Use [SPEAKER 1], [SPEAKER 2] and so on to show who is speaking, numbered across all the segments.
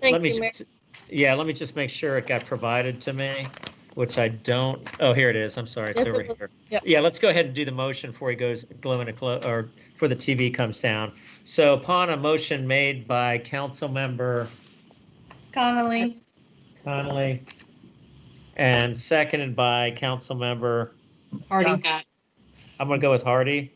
[SPEAKER 1] Thank
[SPEAKER 2] Let me
[SPEAKER 1] you, Mayor.
[SPEAKER 2] just, yeah, let me just make sure it got provided to me, which I don't, oh, here it is, I'm sorry, it's
[SPEAKER 1] Yes, it
[SPEAKER 2] over
[SPEAKER 1] was-
[SPEAKER 2] here.
[SPEAKER 1] yep.
[SPEAKER 2] Yeah, let's go ahead and do the motion before he goes glow in a clo, or before the TV comes down. So upon a motion made by council member
[SPEAKER 3] Connolly,
[SPEAKER 2] Connolly and seconded by council member,
[SPEAKER 3] Hardy,
[SPEAKER 2] I'm gonna go with Hardy.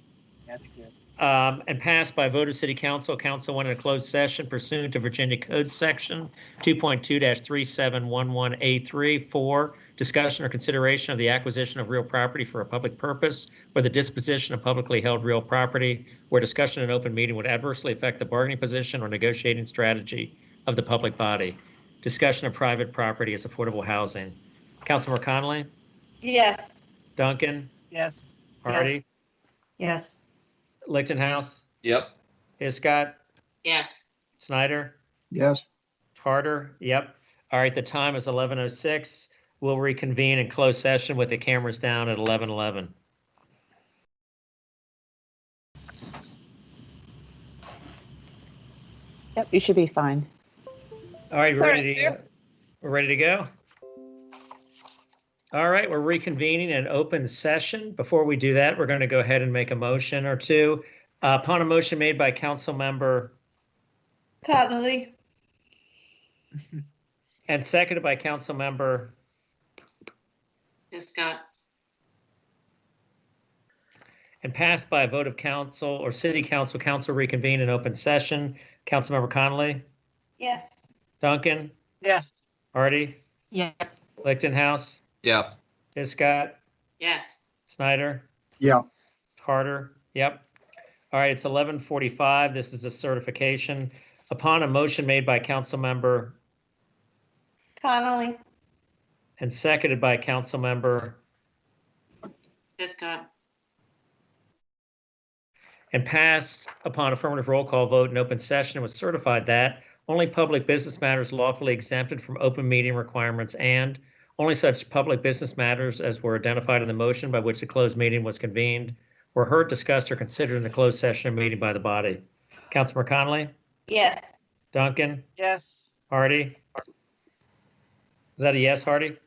[SPEAKER 4] That's good.
[SPEAKER 2] um, and passed by vote of city council. Council went in a closed session pursuant to Virginia Code Section 2.2-3711A3 for discussion or consideration of the acquisition of real property for a public purpose or the disposition of publicly held real property where discussion in open meeting would adversely affect the bargaining position or negotiating strategy of the public body. Discussion of private property as affordable housing. Councilmember Connolly,
[SPEAKER 3] yes.
[SPEAKER 2] Duncan,
[SPEAKER 4] Yes.
[SPEAKER 2] Hardy,
[SPEAKER 3] Yes.
[SPEAKER 2] Lichtenhouse,
[SPEAKER 5] Yep.
[SPEAKER 2] Hiscott,
[SPEAKER 6] Yes.
[SPEAKER 2] Snyder.
[SPEAKER 7] Yes.
[SPEAKER 2] Harder, yep. All right, the time is 11:06. We'll reconvene in closed session with the cameras down at 11:11.
[SPEAKER 8] Yep, you should be fine.
[SPEAKER 2] All right, we're
[SPEAKER 1] All right,
[SPEAKER 2] ready to, we're ready to go? All right, we're reconvening in open session. Before we do that, we're going to go ahead and make a motion or two. Uh, Upon a motion made by council member
[SPEAKER 3] Connolly,
[SPEAKER 2] and seconded by council member
[SPEAKER 6] Hiscott.
[SPEAKER 2] and passed by a vote of council or city council, council reconvene in open session. Councilmember Connolly,
[SPEAKER 3] yes.
[SPEAKER 2] Duncan,
[SPEAKER 4] Yes.
[SPEAKER 2] Hardy,
[SPEAKER 3] Yes.
[SPEAKER 2] Lichtenhouse,
[SPEAKER 5] Yep.
[SPEAKER 2] Hiscott,
[SPEAKER 6] Yes.
[SPEAKER 2] Snyder,
[SPEAKER 7] Yeah.
[SPEAKER 2] Harder, yep. All right, it's eleven forty-five. This is a certification. Upon a motion made by council member
[SPEAKER 3] Connolly,
[SPEAKER 2] and seconded by council member
[SPEAKER 6] Hiscott.
[SPEAKER 2] and passed upon affirmative roll call vote in open session and was certified that only public business matters lawfully exempted from open meeting requirements and only such public business matters as were identified in the motion by which the closed meeting was convened were heard, discussed, or considered in the closed session or meeting by the body. Councilmember Connolly,
[SPEAKER 3] yes.
[SPEAKER 2] Duncan,
[SPEAKER 4] Yes.
[SPEAKER 2] Hardy? Is that a yes, Hardy?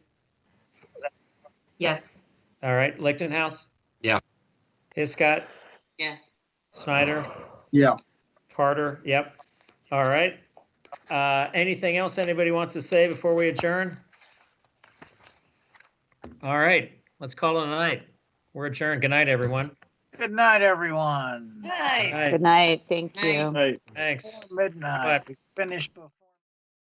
[SPEAKER 3] Yes.
[SPEAKER 2] All right, Lichtenhouse?
[SPEAKER 5] Yeah.
[SPEAKER 2] Hiscott,
[SPEAKER 6] Yes.
[SPEAKER 2] Snyder,
[SPEAKER 7] Yeah.
[SPEAKER 2] Carter, yep. All right. Uh, Anything else anybody wants to say before we adjourn? All right, let's call it a night. We're adjourned. Good night, everyone.
[SPEAKER 4] Good night, everyone.
[SPEAKER 3] Hi.
[SPEAKER 2] Good night.
[SPEAKER 8] Good night. Thank
[SPEAKER 6] Night.
[SPEAKER 8] you.
[SPEAKER 2] Thanks.
[SPEAKER 4] Midnight. We finished before.